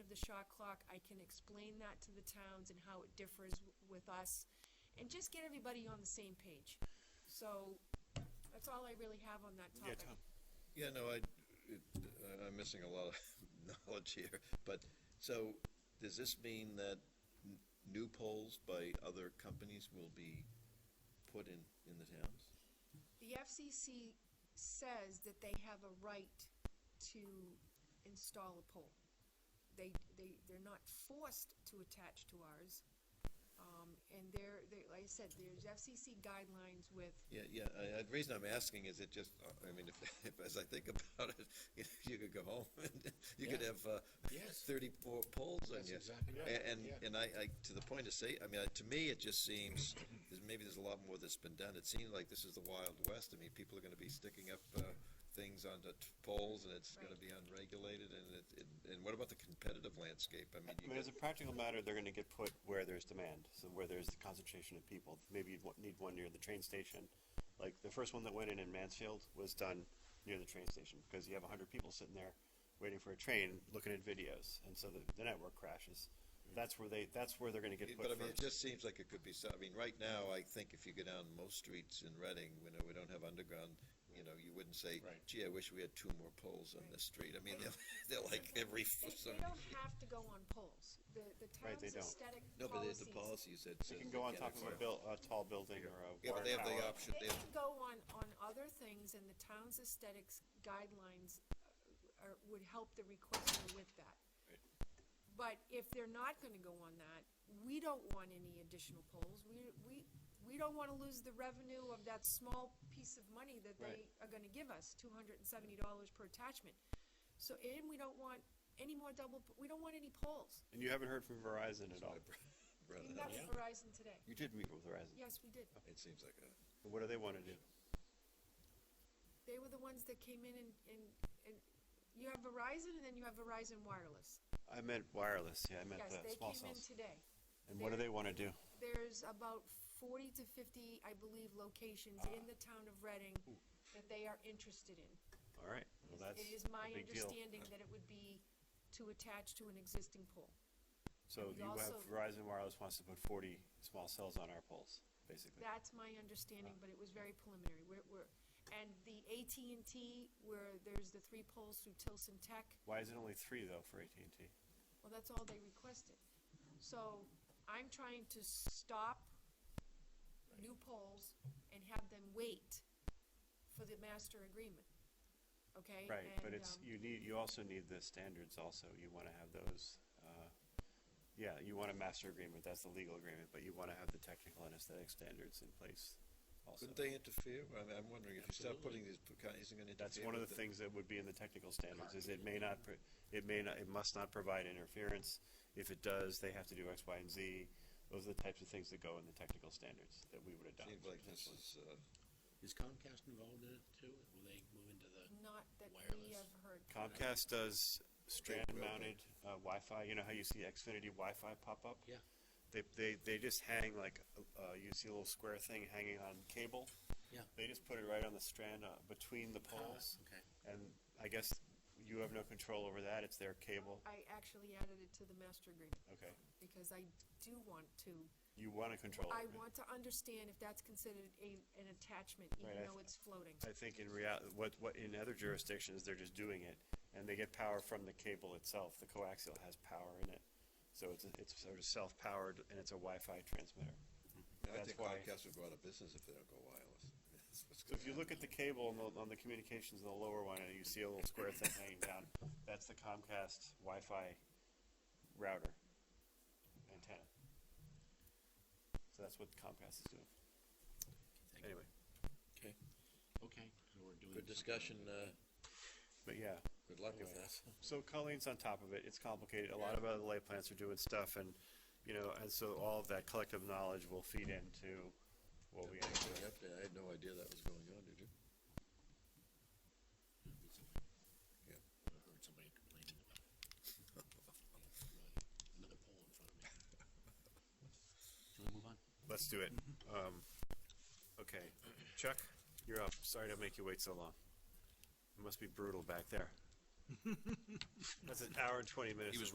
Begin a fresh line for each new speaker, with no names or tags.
the shot clock, I can explain that to the towns and how it differs w- with us, and just get everybody on the same page. So, that's all I really have on that
Yeah,
topic.
Tom.
Yeah, no, I, it, I- I'm missing a lot of knowledge here, but, so, does this mean that n- new polls by other companies will be put in, in the towns?
The FCC says that they have a right to install a pole. They, they, they're not forced to attach to ours. Um, and there, they, like I said, there's FCC guidelines with,
Yeah, yeah, I, I, the reason I'm asking is it just, uh, I mean, if, if, as I think about it, you, know, you could go home and you could
Yeah.
have, uh,
Yes.
thirty-four polls on
That's
you.
exactly right.
A- And,
Yeah.
and I, I, to the point of say, I mean, I- to me, it just seems, there's- maybe there's a lot more that's been done. It seems like this is the Wild West. I mean, people are gonna be sticking up, uh, things on the t- poles and it's gonna
Right.
be unregulated and it, it, and what about the competitive landscape? I mean,
I
you
mean,
got-
as a practical matter, they're gonna get put where there's demand, so where there's the concentration of people. Maybe you'd wa- need one near the train station. Like, the first one that went in in Mansfield was done near the train station, because you have a hundred people sitting there waiting for a train, looking at videos, and so the, the network crashes. That's where they, that's where they're gonna get
It-
put
But I mean, it
first.
just seems like it could be, so- I mean, right now, I think if you go down most streets in Reading, you know, we don't have underground, you know, you wouldn't say,
Right.
gee, I wish we had two more poles on
Right.
this street. I mean, they're, they're like every,
they,
f-
they
some,
don't have to go on poles. The, the
Right,
town's
they don't.
aesthetic
no, but there's
policies.
the policies that.
They
says
can
they
go on
can't
top of a
acquire.
buil- a tall building or a
Yeah, but
water
they have the
tower.
option,
They
they have,
can go on, on other things and the town's aesthetics guidelines uh, are, would help the requester with that. But if they're not gonna go on that, we don't want any additional polls. We, we, we don't wanna lose the revenue of that small piece of money that they
Right.
are gonna give us, two hundred and seventy dollars per attachment. So, and we don't want any more double, we don't want any polls.
And you haven't heard from Verizon at all.
brought
We
it
met
up.
with Verizon today.
You did meet with Verizon.
Yes, we did.
It seems like a.
What do they wanna do?
They were the ones that came in and, and, and you have Verizon and then you have Verizon Wireless.
I meant wireless, yeah, I meant
Yes,
the
they
small
came in
cells.
today.
And what do
they're-
they wanna do?
There's about forty to fifty, I believe, locations in the town of Reading that they are interested in.
All right, well, that's
It is
a
my
big deal.
understanding that it would be to attach to an existing pole.
So
we
you have
also-
Verizon Wireless wants to put forty small cells on our poles, basically.
That's my understanding, but
Uh.
it was very preliminary. We're, we're, and the AT&T, where there's the three poles through Tilson Tech,
Why is it only three though for AT&T?
Well, that's all they requested. So I'm trying to stop new polls and have them wait for the master agreement, okay?
Right, but
And,
it's,
um,
you need, you also need the standards also. You wanna have those, uh, yeah, you want a master agreement, that's the legal agreement, but you wanna have the technical and aesthetic standards in place also.
Couldn't they interfere? I mean, I'm wondering if you start putting these, isn't gonna interfere.
That's one of
with
the things that would be in the technical standards, is it may not, pro- it may not, it must not provide interference. If it does, they have to do X, Y, and Z. Those are the types of things that go in the technical standards that we would adopt.
Seems like this
essentially.
is, uh,
Is Comcast involved in it too? Will they move into the?
Not that we
Wireless.
have heard.
Comcast does strand
will, but-
mounted uh, Wi-Fi, you know how you see Xfinity Wi-Fi pop up?
Yeah.
They, they, they just hang like, uh, you see a little square thing hanging on cable.
Yeah.
They just put it right on the strand, uh, between the poles.
okay.
And I guess you have no control over that, it's their cable,
I actually added it to the master agreement
okay.
because I do want to,
You wanna control it.
I
right?
want to understand if that's considered a, an attachment,
Right, I
even though
th-
it's floating.
I think in reality, what, what, in other jurisdictions, they're just doing it, and they get power from the cable itself, the coaxial has power in it. So it's, it's sort of self-powered, and it's a Wi-Fi transmitter.
I
That's
think
why-
Comcast would go out of business if they don't go wireless. That's what's
So if you
gonna
look at the cable on the, on the communications in the lower one, and you see a little square thing hanging down, that's the Comcast Wi-Fi router antenna. So that's what Comcast is doing.
Thank you.
Anyway,
Okay, okay, so we're doing.
happen. Good discussion, uh,
but yeah,
good luck with
Anyway.
that.
so Colleen's on top of it. It's complicated. A lot of other lay plants are doing stuff, and you know, and so all of that collective knowledge will feed into what we end uh, up
Good
doing.
update. I had no idea that was going on, did you?
Yeah.
Yeah.
I heard somebody complaining about it. Yeah, Another poll in front of me. Shall we move on?
Let's do it. Um, okay, Chuck, you're up. Sorry to make you wait so long. It must be brutal back there. That's an hour and twenty minutes.
He was
of